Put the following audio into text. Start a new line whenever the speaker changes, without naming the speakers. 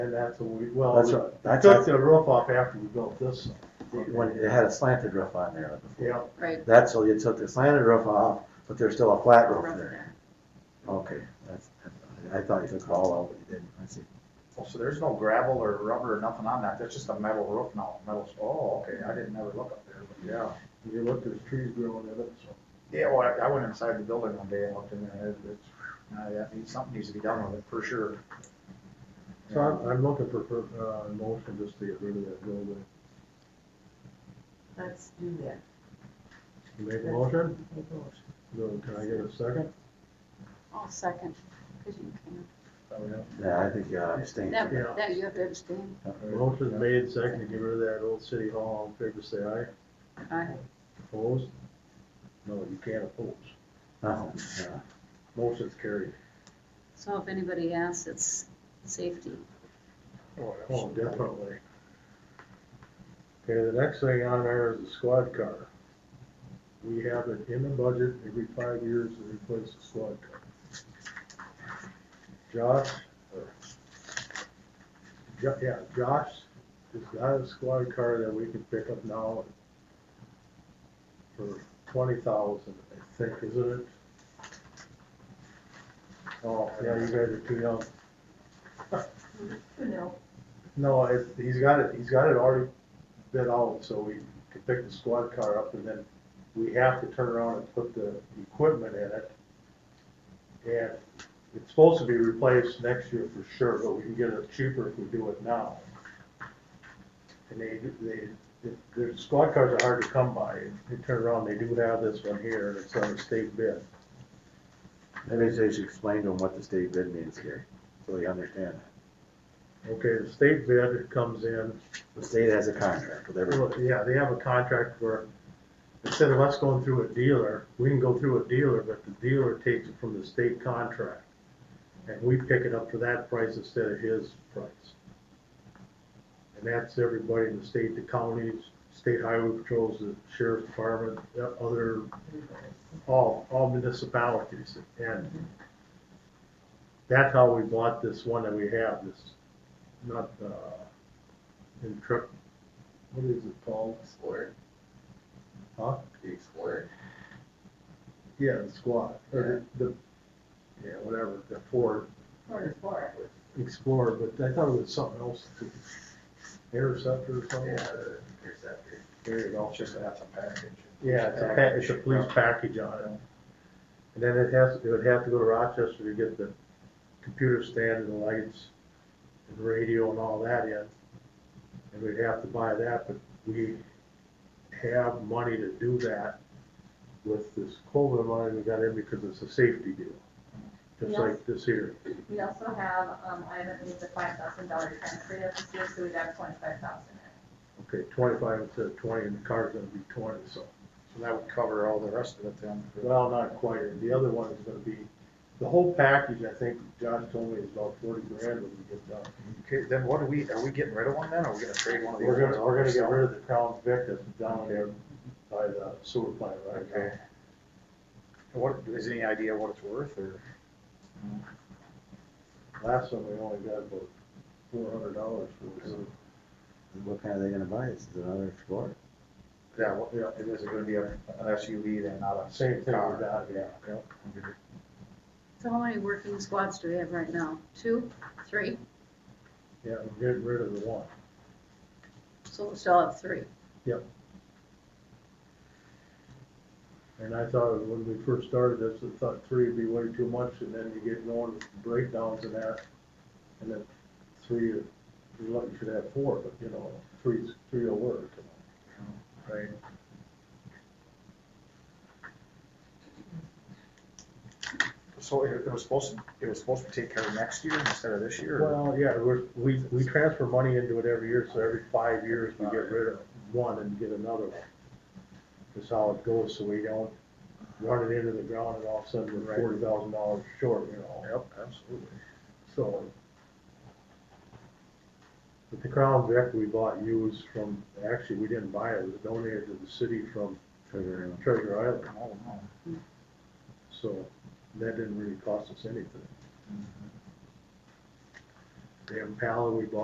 And that's what we, well,
That's
we
right. That's
took the roof off after we built this.
When it had a slanted roof on there.
Yeah,
right,
That's, so you took the slanted roof off, but there's still a flat roof
rough
there.
there.
Okay, that's, I thought you took it all out, but you didn't. I see.
Oh, so there's no gravel or rubber or nothing on that, that's just a metal roof now, metal, oh, okay, I didn't ever look up there, but yeah.
yeah. You look, there's trees growing in it, so.
Yeah, well, I- I went inside the building one day and looked in there, it, it's, uh, that needs, something needs to be done with it, for sure.
So I'm, I'm looking for, for, uh, motion just to get rid of that building.
Let's do that.
You Make a motion?
Make a motion.
Then Can I get a second?
I'll second, because you can,
Yeah, I think, uh, I stayed.
that,
Yeah.
that you have to abstain.
Motion made, second, to get rid of that old city hall, all in favor, say aye.
Aye.
Opposed? No, you can't oppose.
No, Uh-huh, yeah.
Motion's carried.
So if anybody asks, it's safety.
Oh, definitely. Okay, the next thing on there is the squad car. We have it in the budget, every five years to replace the squad car. Josh, or, Jo- yeah, Josh has got a squad car that we can pick up now for twenty thousand, I think, isn't it? Oh, yeah, you guys are too young.
No,
No, it, he's got it, he's got it already bid out, so we can pick the squad car up and then we have to turn around and put the equipment in it. And it's supposed to be replaced next year for sure, but we can get it cheaper if we do it now. And they, they, the squad cars are hard to come by. They turn around, they do have this one here, and it's on a state bid.
Maybe they should explain to them what the state bid means here, so they understand.
Okay, the state bid comes in
The state has a contract with everyone.
Well, Yeah, they have a contract where instead of us going through a dealer, we can go through a dealer, but the dealer takes it from the state contract. And we pick it up for that price instead of his price. And that's everybody in the state, the counties, state highway patrols, the sheriff's department, the other, all, all municipalities. And that's how we bought this one that we have, this, not, uh, in truck, what is it called?
Squirt.
Huh?
The squirt.
Yeah, the squad, or the, the- yeah, whatever, the Ford
for the four.
Explorer, but I thought it was something else, the interceptor or
Yeah,
something.
the interceptor.
There you go, it's just, that's a package.
Yeah, it's a, pa- it's a police package on it. And then it has, it would have to go to Rochester to get the computer stand and the lights and radio and all that in. And we'd have to buy that, but we have money to do that with this COVID money we got in because it's a safety deal. Just
Yes.
like this here.
We also have, um, I haven't made the five thousand dollar transfer yet this year, so we got twenty-five thousand in.
Okay, twenty-five instead of twenty and the car's gonna be twenty, so.
So that would cover all the rest of it then.
Well, not quite. The other one is gonna be, the whole package, I think Josh told me is about forty grand when we get done.
Okay, then what are we, are we getting rid of one then, or are we gonna trade one of the?
We're
old
gonna,
ones
we're gonna get
ourselves?
rid of the Crown Vic that's down there by the sewer plant right now.
Okay. What, is any idea what it's worth, or?
Last one, we only got about four hundred dollars for it.
What kind are they gonna buy? Is it another Explorer?
Yeah, what, yeah, it is gonna be a- an SUV then, not a.
Same thing
car.
with that, yeah.
Yep.
So how many working squads do we have right now? Two, three?
Yeah, we're getting rid of the one.
So we still have three.
And I thought when we first started this, I thought three would be way too much, and then you get going with breakdowns and that. And then three, you're lucky you should have four, but you know, three's, three will work. you know. Right?
So it it was supposed to, it was supposed to take care of next year instead of this year? or-
Well, yeah, we're, we, we transfer money into it every year, so every five years we get rid of one and get another one. That's how it goes, so we don't run it into the ground and all of a sudden we're forty thousand dollars short, you know.
Yep, absolutely.
So. But the Crown Vic we bought used from, actually, we didn't buy it, it was donated to the city from
Treasure Island.
Treasure Island,
Oh, no.
so that didn't really cost us anything.
damn pallet we bought